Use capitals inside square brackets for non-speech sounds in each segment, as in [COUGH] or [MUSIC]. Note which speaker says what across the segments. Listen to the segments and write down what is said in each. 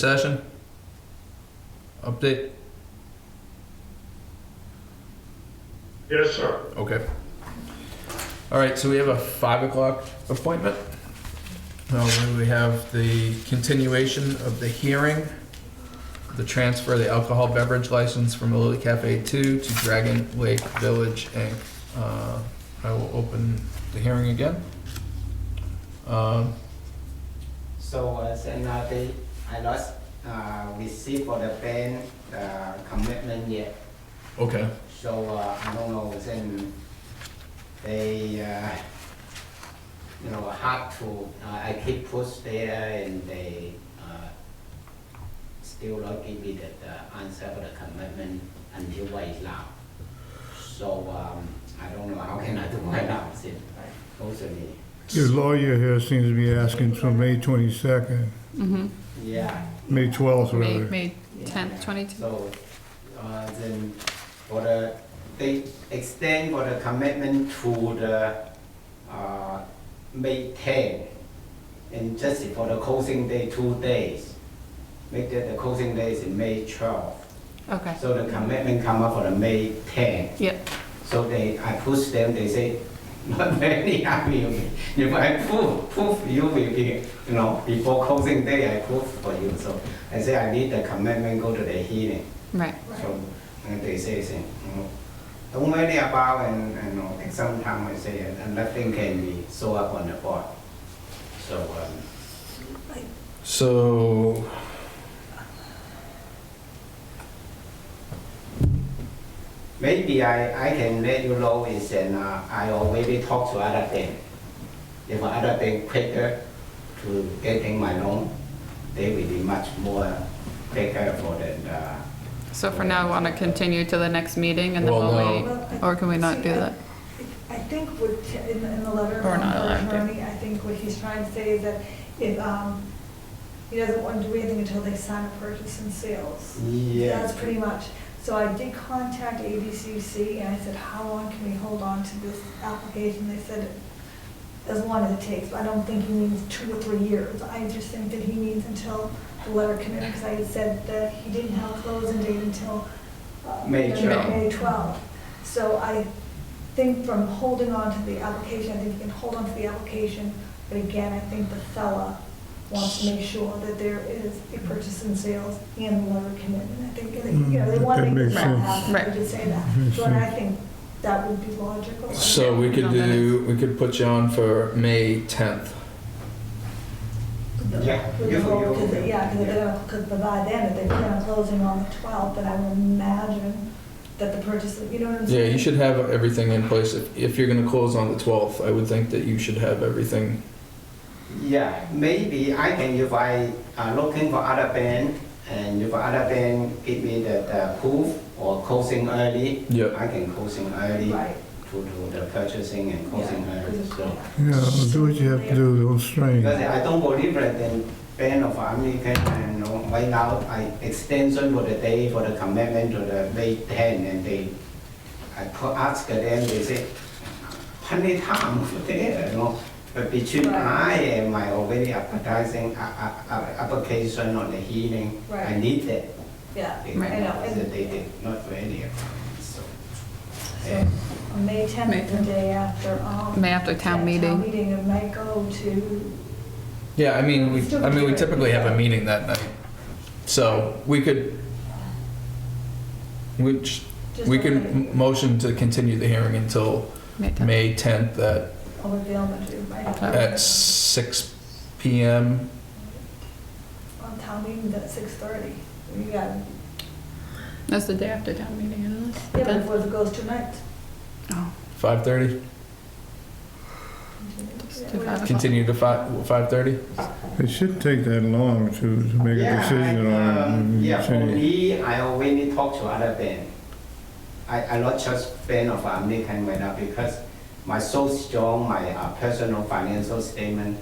Speaker 1: Session? Update?
Speaker 2: Yes, sir.
Speaker 1: Okay. All right, so we have a five o'clock appointment. Uh, where we have the continuation of the hearing, the transfer of the alcohol beverage license from Lily Cafe Two to Dragon Lake Village Inc. Uh, I will open the hearing again. Um,
Speaker 3: So as another, I lost, uh, receive for the bank, the commitment yet.
Speaker 1: okay,
Speaker 3: So, uh, I don't know, then they, uh, you know, hard to, uh, I keep push there and they, uh, still not give me the, the answer for the commitment until right now. So, um, I don't know, how can I do [LAUGHS] right now, then, mostly,
Speaker 4: Your lawyer here seems to be asking for May 22nd,
Speaker 5: Mm-hmm.
Speaker 3: yeah.
Speaker 4: May 12th,
Speaker 5: May,
Speaker 4: rather.
Speaker 5: May tenth, twenty-two.
Speaker 3: So, uh, then for the, they extend for the commitment to the, uh, May ten. And just for the closing day, two days. Make that the closing day is in May twelve.
Speaker 5: Okay,
Speaker 3: So the commitment come up for the May ten.
Speaker 5: yep,
Speaker 3: So they, I push them, they say, not very happy with me. If I prove, prove you will be, you know, before closing day, I prove for you. So I say, I need the commitment, go to the hearing.
Speaker 5: right.
Speaker 3: So, and they say, say, you know, don't worry about and, and you know, take some time, I say, and and nothing can be so up on the board. So, um,
Speaker 1: so.
Speaker 3: Maybe I, I can let you know is and uh, I already talk to other bank. If other bank quicker to getting my loan, they will be much more quicker for the, uh,
Speaker 5: So for now, want to continue to the next meeting and then
Speaker 1: Well,
Speaker 5: we'll
Speaker 1: no.
Speaker 5: wait? Or can we not do that?
Speaker 6: I think what, t- in, in the letter
Speaker 5: Or
Speaker 6: from
Speaker 5: not allowed to.
Speaker 6: Bernie, I think what he's trying to say is that if, um, he doesn't want to do anything until they sign a purchase and sales.
Speaker 3: Yeah.
Speaker 6: That's pretty much. So I did contact ABCC and I said, how long can we hold on to this application? They said, as long as it takes, but I don't think he means two or three years. I just think that he means until the letter commitment, because I had said that he didn't have a closing date until. uh,
Speaker 3: May
Speaker 6: May
Speaker 3: 12.
Speaker 6: May 12. So I think from holding on to the application, I think you can hold on to the application, but again, I think the fella wants to make sure that there is a purchase and sales and the letter commitment. I think, that, you know, they
Speaker 4: Mm,
Speaker 6: want to
Speaker 4: that
Speaker 6: make this
Speaker 4: makes
Speaker 6: all
Speaker 4: sense.
Speaker 6: happen,
Speaker 5: Right.
Speaker 6: we could say that.
Speaker 4: Makes
Speaker 6: So and I
Speaker 4: sense.
Speaker 6: think that would be logical.
Speaker 1: So we could
Speaker 5: No, that
Speaker 1: do, we could put you on for May tenth.
Speaker 3: Yeah,
Speaker 6: With
Speaker 3: you-
Speaker 6: the whole-
Speaker 3: you-
Speaker 6: 'cause they- Yeah, because they're gonna, because by then, if they plan on closing on the 12th, then I would imagine that the purchase, you know what I'm
Speaker 1: Yeah,
Speaker 6: saying?
Speaker 1: you should have everything in place. If, if you're gonna close on the twelfth, I would think that you should have everything.
Speaker 3: Yeah, maybe I can, if I uh, looking for other bank, and if other bank give me the, the proof or closing early,
Speaker 1: Yep.
Speaker 3: I can closing early
Speaker 6: Right.
Speaker 3: to do the purchasing and closing
Speaker 6: Yeah, 'cause
Speaker 3: early,
Speaker 6: it's-
Speaker 3: so.
Speaker 4: Yeah, well, do what you have to do, don't strain.
Speaker 3: Because I don't believe that the ban of American and you know, right now, I extension for the day for the commitment to the May 10 and they, I put- ask them, they say, plenty time for there, [LAUGHS] you know. But between I and my already advertising, uh, uh, uh, application on the healing, I
Speaker 6: Right.
Speaker 3: need that.
Speaker 6: Yeah,
Speaker 3: They-
Speaker 6: I know.
Speaker 3: They,
Speaker 6: and-
Speaker 3: they did not ready, so.
Speaker 6: So,
Speaker 3: and-
Speaker 6: on May
Speaker 5: May
Speaker 6: 10th, the
Speaker 5: 10th.
Speaker 6: day after, um.
Speaker 5: May after town
Speaker 6: yeah,
Speaker 5: meeting.
Speaker 6: meeting, it might go to,
Speaker 1: Yeah, I mean, we, I mean, we typically have a meeting that night. So we could, which,
Speaker 6: just.
Speaker 1: we
Speaker 6: over
Speaker 1: could
Speaker 6: the-
Speaker 1: m- motion to continue the hearing until
Speaker 5: May tenth.
Speaker 1: May tenth at,
Speaker 6: Over the elementary, right?
Speaker 1: at six PM.
Speaker 6: On town meeting at 6:30. You got, yeah,
Speaker 5: That's the day after town meeting, isn't it?
Speaker 6: but if it goes tonight.
Speaker 5: Oh,
Speaker 1: Five thirty,
Speaker 5: Just
Speaker 6: yeah,
Speaker 5: do
Speaker 6: we're-
Speaker 5: five o'clock.
Speaker 1: continue to five, five thirty?
Speaker 4: It shouldn't take that long to to make a
Speaker 3: Yeah,
Speaker 4: decision
Speaker 3: I, um,
Speaker 4: on it.
Speaker 3: Yeah,
Speaker 4: It's
Speaker 3: for
Speaker 4: a-
Speaker 3: me, I already talk to other band. I, I not just fan of uh, American right now because my so strong, my uh, personal financial statement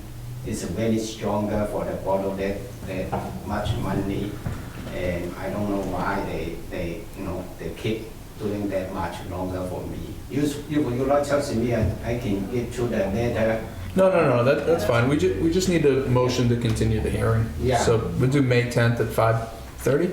Speaker 3: is very stronger for the bottle that, that much money. And I don't know why they, they, you know, they keep doing that much longer for me. You, s- you, you not just me, I, I can get to the letter.
Speaker 1: No, no, no, that, that's fine. We ju, we just need a motion to continue the hearing.
Speaker 3: Yeah.
Speaker 1: So we'll do May 10th at 5:30?